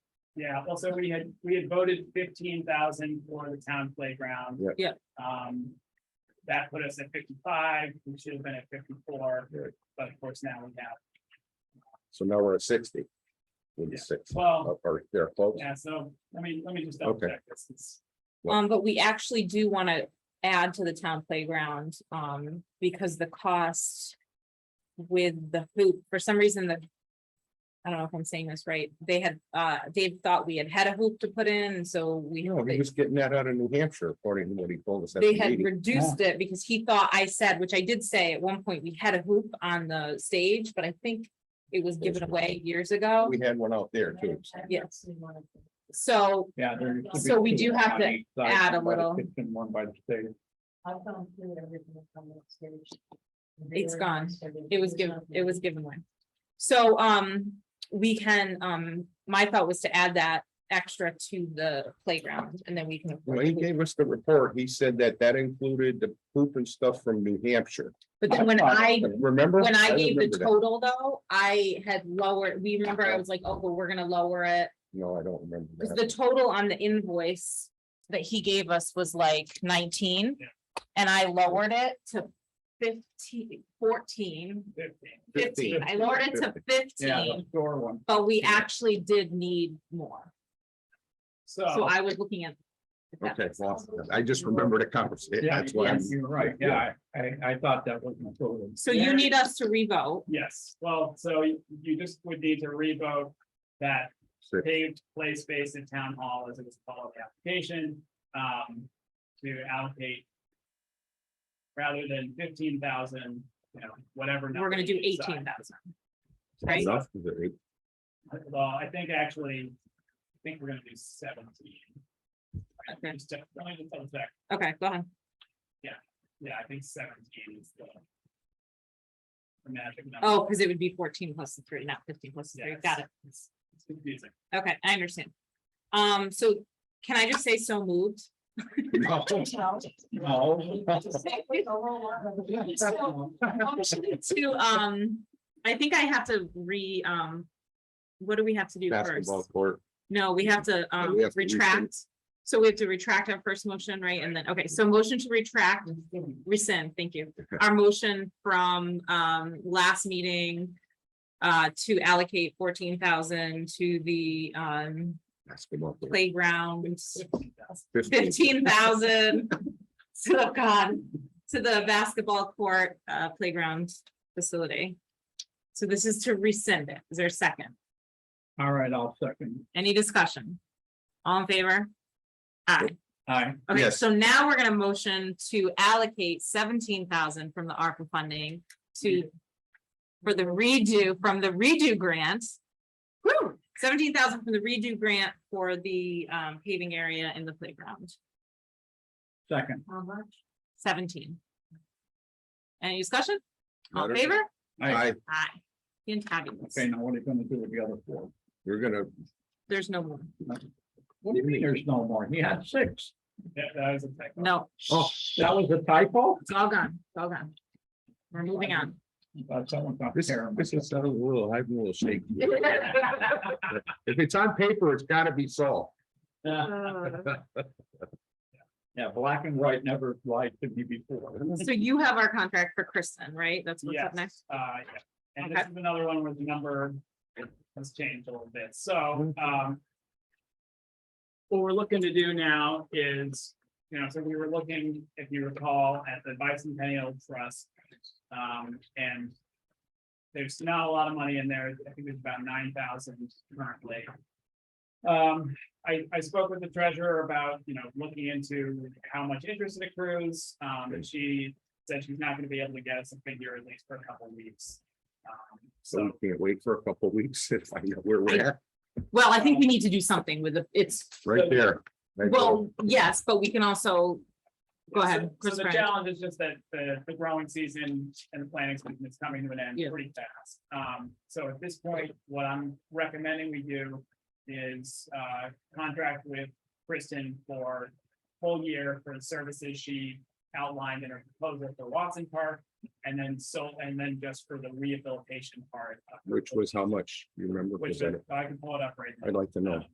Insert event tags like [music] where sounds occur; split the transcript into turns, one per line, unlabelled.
Yeah, well, so we had, we had voted fifteen thousand for the town playground.
Yeah.
Yeah.
Um, that put us at fifty-five, we should have been at fifty-four,
Right.
but of course now we have
So now we're at sixty. With
Yeah.
six,
twelve.
or or they're close.
Yeah, so, I mean, let me just double
Okay.
check this. It's-
Well-
Um, but we actually do want to add to the town playground, um, because the cost with the hoop, for some reason, the I don't know if I'm saying this right, they had, uh, Dave thought we had had a hoop to put in, and so we,
No, he was getting that out of New Hampshire, according to what he told us. at
they
the
had
meeting.
reduced it because he thought I said, which I did say at one point, we had a hoop on the stage, but I think it was given away years ago.
We had one out there too. so
Yes. So
Yeah. there could be
So we
two
do have to
on each side,
add a
one by the
little-
kitchen, One by the state.
It's gone. It was given, it was given away. So, um, we can, um, my thought was to add that extra to the playground and then we can.
When he gave us the report, he said that that included the poop and stuff from New Hampshire.
But then when I,
Remember?
when I gave the
remember that.
total though, I had lowered, we remember I was like, oh, well, we're gonna lower it.
No, I don't remember.
'Cause
that.
the total on the invoice that he gave us was like nineteen.
Yeah.
And I lowered it to 15, 14, 15.
15.
I lowered it to
Yeah,
fifteen.
the store one.
But we
Yeah.
actually did need more, so
So,
I was looking at. if that
Oh. Okay,
makes
well,
sense.
I just remembered a conversation.
Yeah,
That's why I'm.
You're right, yeah, I, I thought that was included.
So you need us to revote,
yes, well, so you you just would need to revote that
Six.
paved play space in town hall as it was called in the application, um, to allocate rather than fifteen thousand, you know, whatever.
we're gonna do eighteen thousand. Right,
Enough of it.
thousand. Well, I think actually, I think we're gonna do seventeen.
Okay.
Just to- let me just double check.
okay, go ahead,
Yeah, I think seventeen is the the magic number.
oh, because it would be fourteen plus the three, not fifteen plus the three,
Yeah,
got it,
It's it's confusing.
okay, I understand. Um, so can I just say so moved?
[laughs]
No,
No.
To, um, I think I have to re, um, what do we have to do first?
Basketball court.
No, we have to um
Oh, we have to rescind.
retract. So we have to retract our first motion, right? And then, okay, so motion to retract, rescind, thank you. Our motion from um last meeting. Uh, to allocate fourteen thousand to the um
Basketball. court.
[laughs] playground,
15.
fifteen thousand. [laughs] So God, to the basketball court uh playground facility. So this is to rescind it. Is there a second?
All right, I'll second.
Any discussion? All in favor? Aye.
Aye.
Okay,
Yes.
so now we're gonna motion to allocate seventeen thousand from the ARPA funding to. For the redo, from the redo grant. Woo, seventeen thousand from the redo grant for the um paving area in the playground,
second.
how much? Seventeen. Any discussion? All in
Matter-
favor?
Aye.
Aye,
Aye. In fabulous,
Okay, now what are you gonna do with the other four?
we're gonna,
there's no more,
What do you mean there's no more? He had six.
That that was a technical.
no,
Oh, that was a typo?
it's all gone, it's all gone. We're moving on.
I
Uh,
thought someone got
this,
there.
[laughs]
this is a little, I'm a little shaky.
[laughs]
Uh,
If it's on paper, it's gotta be solved.
Yeah, black and white never lied to me before.
So you have our contract for Kristen, right? That's what's
Yes,
up next.
uh, yeah, and this is another one where the number has changed a little bit,
Mm-hmm.
so, um. What we're looking to do now is, you know, so we were looking, if you recall, at the bicentennial trust. Um, and. There's not a lot of money in there, I think there's about nine thousand currently. Um, I, I spoke with the treasurer about, you know, looking into how much interest it accrues, um, and she said she's not gonna be able to get us a figure at least for a couple of weeks. Um,
So
So,
we can't wait for a couple of weeks to find out where we're at,
Well, I think we need to do something with the, it's,
right there. Right
well, yes, but we can also, go ahead,
So-
Chris
So the
Bryant.
challenge is just that the, the growing season and the planting season is coming to an end
Yeah.
pretty fast. Um, so at this point, what I'm recommending we do is, uh, contract with Kristen for full year for the services she outlined in her proposal for Watson Park. And then so, and then just for the rehabilitation part. of
there,
her
Which was how much, you remember?
Which
'Cause
is- I can pull it up right now.
I'd like to know.